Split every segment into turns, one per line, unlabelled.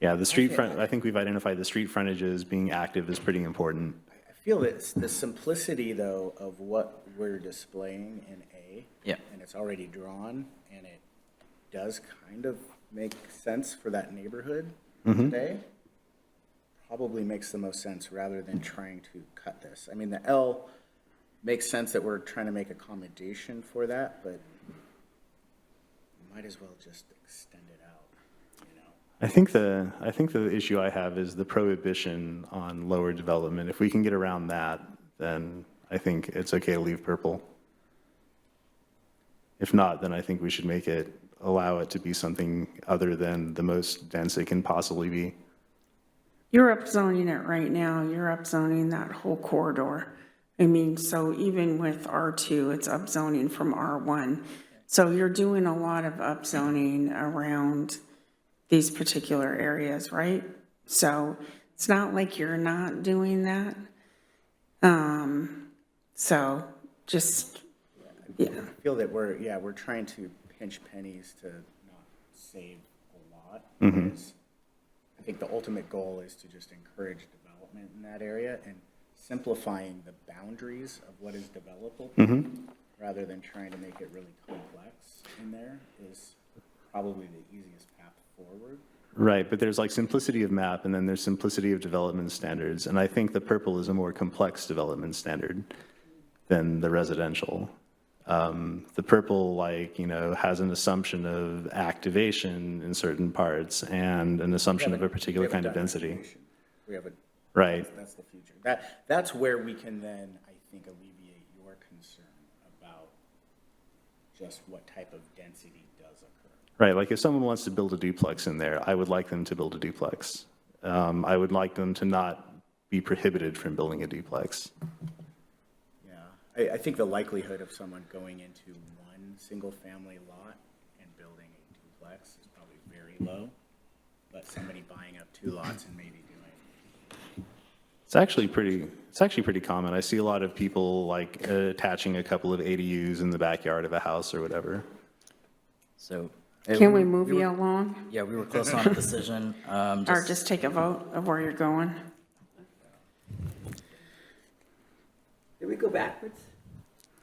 Yeah, the street front, I think we've identified the street frontages being active is pretty important.
I feel it's the simplicity, though, of what we're displaying in A.
Yeah.
And it's already drawn, and it does kind of make sense for that neighborhood today. Probably makes the most sense rather than trying to cut this. I mean, the L makes sense that we're trying to make accommodation for that, but might as well just extend it out, you know?
I think the, I think the issue I have is the prohibition on lower development. If we can get around that, then I think it's okay to leave purple. If not, then I think we should make it, allow it to be something other than the most dense it can possibly be.
You're upzoning it right now, you're upzoning that whole corridor. I mean, so even with R2, it's upzoning from R1. So you're doing a lot of upzoning around these particular areas, right? So it's not like you're not doing that. Um, So just, yeah.
I feel that we're, yeah, we're trying to pinch pennies to not save a lot.
Mm-hmm.
because I think the ultimate goal is to just encourage development in that area and simplifying the boundaries of what is developable,
Mm-hmm.
rather than trying to make it really complex in there is probably the easiest path forward.
Right, but there's like simplicity of map, and then there's simplicity of development standards. And I think the purple is a more complex development standard than the residential. Um, The purple, like, you know, has an assumption of activation in certain parts and an assumption of a particular
We haven't
kind of
done
density.
activation. We have a
Right,
That's the future. That, that's where we can then, I think, alleviate your concern about just what type of density does occur.
right. Like if someone wants to build a duplex in there, I would like them to build a duplex. Um, I would like them to not be prohibited from building a duplex.
Yeah, I, I think the likelihood of someone going into one single-family lot and building a duplex is probably very low, but somebody buying up two lots and maybe doing,
It's actually pretty, it's actually pretty common. I see a lot of people like uh, attaching a couple of ADUs in the backyard of a house or whatever.
So.
Can we move
were-
you along
Yeah, we were close on a decision. Um,
or
just,
just take a vote of where you're going?
Did we go backwards?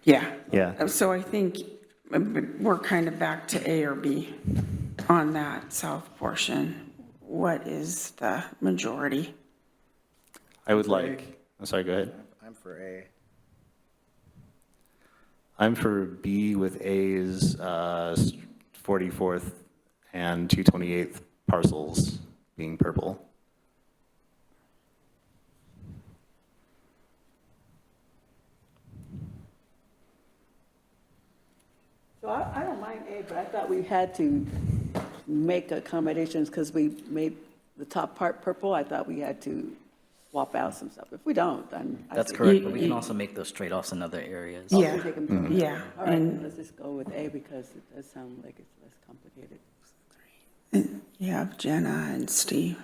Yeah.
Yeah.
Uh, So I think uh, we're kind of back to A or B on that south portion. What is the majority?
I would like, I'm sorry, go ahead.
I'm for A.
I'm for B with A's uh, 44th and 228th parcels being purple.
So I, I don't mind A, but I thought we had to make accommodations because we made the top part purple. I thought we had to swap out some stuff. If we don't, then. I
that's
think-
correct, but we can also make those trade-offs in other areas.
Yeah.
Oh, We take 'em separate.
Yeah,
All right,
and
let's just go with A because it does sound like it's less complicated.
you have Jenna and Steve.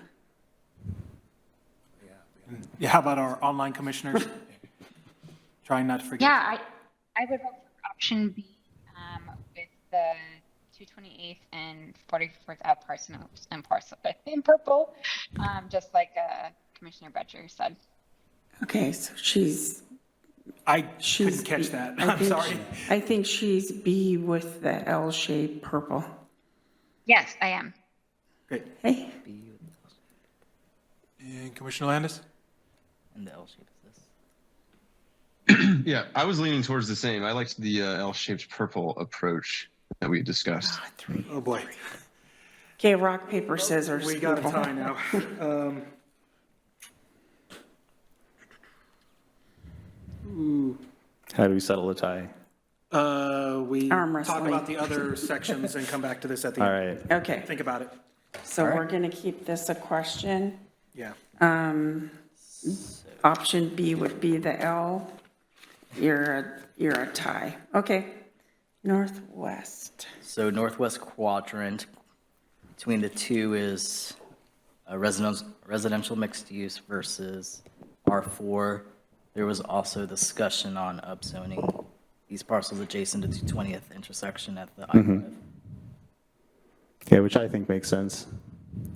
Yeah, how about our online commissioners? Trying not to forget.
Yeah, I, I would vote for option B um, with the 228th and 44th out parcel and parcel in purple, um, just like uh, Commissioner Butcher said.
Okay, so she's,
I
she's.
couldn't catch that.
I
I'm
think
sorry.
she- I think she's B with the L-shaped purple.
Yes, I am.
Great.
Hey,
And Commissioner Landis?
And the L shape is this.
Yeah, I was leaning towards the same. I liked the uh, L-shaped purple approach that we discussed.
Oh, boy.
okay, rock, paper, scissors.
We got a
people.
tie now. Um,
How do we settle a tie?
uh, We
Arm
talk
wrestling.
about the other sections and come back to this at the
All
end.
right.
Okay,
Think about it.
so we're going to keep this a question.
Yeah.
Option B would be the L. You're, a you're a tie. Okay. Northwest.
So northwest quadrant, between the two is uh, residence- residential mixed use versus R4. There was also discussion on upzoning these parcels adjacent to
Mm-hmm.
220th intersection at the I-5.
Yeah, which I think makes sense.